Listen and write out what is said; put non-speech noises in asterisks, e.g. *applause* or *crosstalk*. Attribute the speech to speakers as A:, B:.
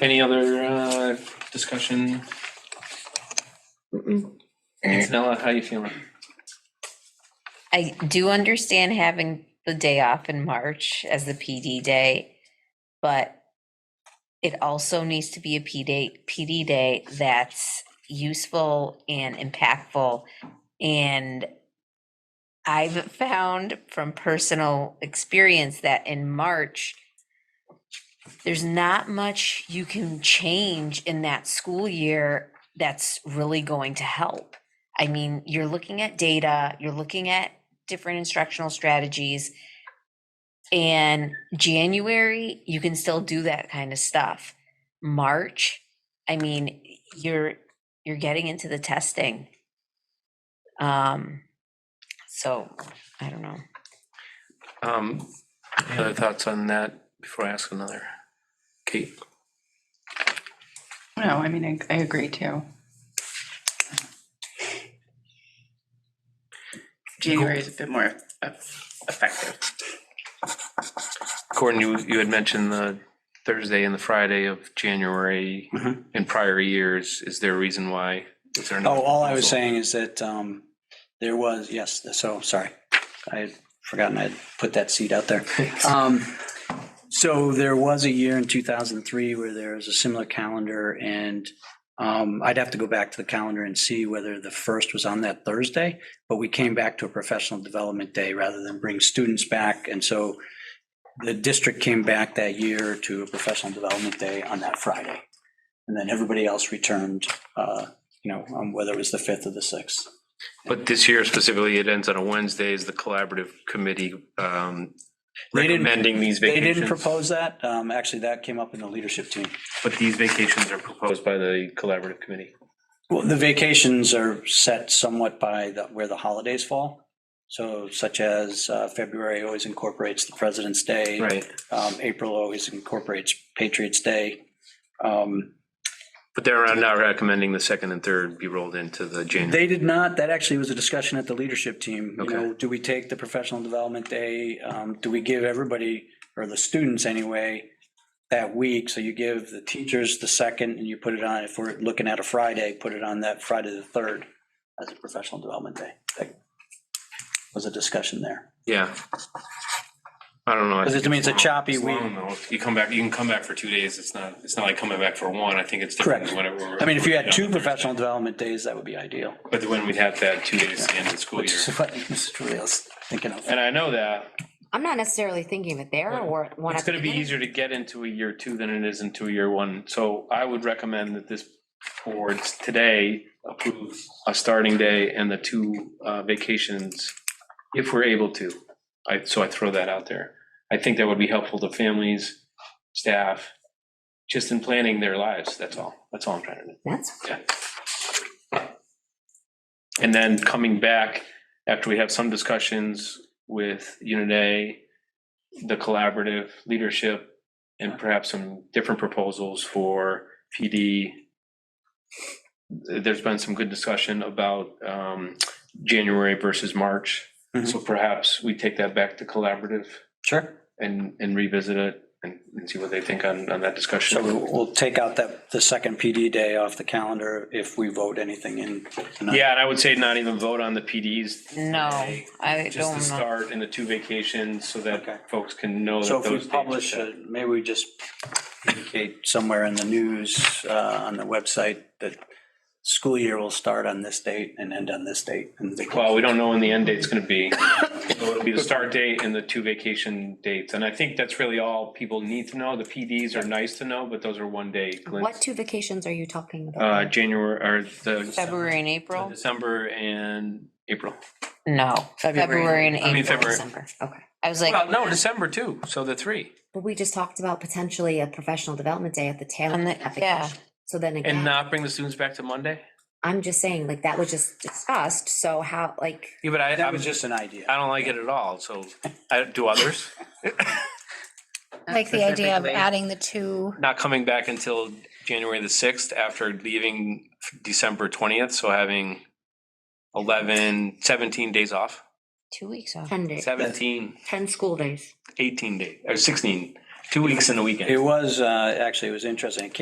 A: Any other uh, discussion?
B: Mm-mm.
A: Antonella, how you feeling?
C: I do understand having the day off in March as the PD day, but it also needs to be a PD, PD day that's useful and impactful. And I've found from personal experience that in March, there's not much you can change in that school year that's really going to help. I mean, you're looking at data, you're looking at different instructional strategies. And January, you can still do that kind of stuff. March, I mean, you're you're getting into the testing. Um, so I
A: *laughs*
C: don't know.
A: Um, any other thoughts on that before I ask another? Kate,
D: No, I mean, I, I agree too. January is a bit more eff- effective.
A: Gordon, you, you had mentioned the Thursday and the Friday of January
E: Mhm.
A: in prior years. Is there a reason why? Is there another
E: Oh, all I was
A: proposal?
E: saying is that um, there was, yes, so, sorry. I had forgotten I'd put that seed out there. Um, So there was a year in 2003 where there was a similar calendar, and um, I'd have to go back to the calendar and see whether the first was on that Thursday, but we came back to a professional development day rather than bring students back. And so the district came back that year to a professional development day on that Friday. And then everybody else returned, uh, you know, um, whether it was the 5th or the 6th.
A: But this year specifically, it ends on a Wednesday. Is the collaborative committee um,
E: They didn't-
A: recommending these
E: They
A: vacations?
E: didn't propose that. Um, Actually, that came up in the leadership team.
A: But these vacations are proposed by the collaborative committee.
E: Well, the vacations are set somewhat by the, where the holidays fall. So such as uh, February always incorporates the President's Day.
A: Right.
E: Um, April always incorporates Patriots Day. Um,
A: But they're not recommending the second and third be rolled into the January.
E: They did not, that actually was a discussion at the leadership team. You know,
A: Okay.
E: do we take the professional development day? um, Do we give everybody, or the students anyway, that week? So you give the teachers the second and you put it on, if we're looking at a Friday, put it on that Friday the third as a professional development day. That Was a discussion there.
A: Yeah. I don't know. I
E: Because
A: think
E: it means a
A: long.
E: choppy
A: It's
E: week.
A: long, though. If You come back, you can come back for two days. It's not, it's not like coming back for one. I think it's different.
E: Correct.
A: than when it were-
E: I mean, if you had two
A: Yeah.
E: professional development days, that would be ideal. *laughs*
A: But when we'd have to have two days at the end of the school
E: Which
A: year.
E: is what Mr. Trulio's thinking of.
A: And I know that.
B: I'm not necessarily thinking of it there
A: Right.
B: or one.
A: It's
B: at the
A: going to be
B: beginning.
A: easier to get into a year two than it is into a year one. So I would recommend that this board today approve a starting day and the two uh, vacations if we're able to. I, so I throw that out there. I think that would be helpful to families, staff, just in planning their lives. That's all. That's all I'm trying to do.
B: That's,
A: Yeah. And then coming back after we have some discussions with Unit A, the collaborative leadership, and perhaps some different proposals for PD. There's been some good discussion about um, January versus March. So perhaps we take that back to collaborative
E: Sure.
A: and, and revisit it and and see what they think on, on that discussion.
E: So we'll- we'll take out that, the second PD day off the calendar if we vote anything in. tonight.
A: Yeah, and I would say not even vote on the PDs.
C: No,
A: today,
C: I
A: Just
C: don't
A: the
C: know.
A: start and the two vacations so
E: Okay.
A: that folks can know
E: So
A: that
E: if we
A: those.
E: publish,
A: dates-
E: it, maybe we just indicate somewhere in the news, uh, on the website, that school year will start on this date and end on this date. and the-
A: Well, we don't know when the end date's gonna be. So It'll be the start date and the two vacation dates. And I think that's really all people need to know. The PDs are nice to know, but those are one day
B: what
A: glints.
B: two vacations are you talking
A: Uh,
B: about?
A: January or the
C: February and April?
A: December and April.
C: No, February and
A: I mean,
C: April.
A: February.
B: December, okay.
C: I was like,
A: Well, no, December too. So the three.
B: But we just talked about potentially a professional development day at the tail
C: On
B: end
C: the-
B: of that
C: yeah.
B: vacation. So then
A: And
B: again,
A: not bring the students back to Monday?
B: I'm just saying, like, that was just discussed, so how, like,
A: Yeah, but I,
E: That
A: I'm
E: was
A: just,
E: just an idea.
A: I don't like it at all. So I, do others?
F: Like the idea of
G: Specifically.
F: adding the two,
A: not coming back until January the sixth after leaving December twentieth, so having 11, 17 days off,
C: two weeks off.
B: ten days,
A: 17,
B: ten school days.
A: 18 days, or 16, two weeks in a weekend.
E: It was, uh, actually, it was interesting. It came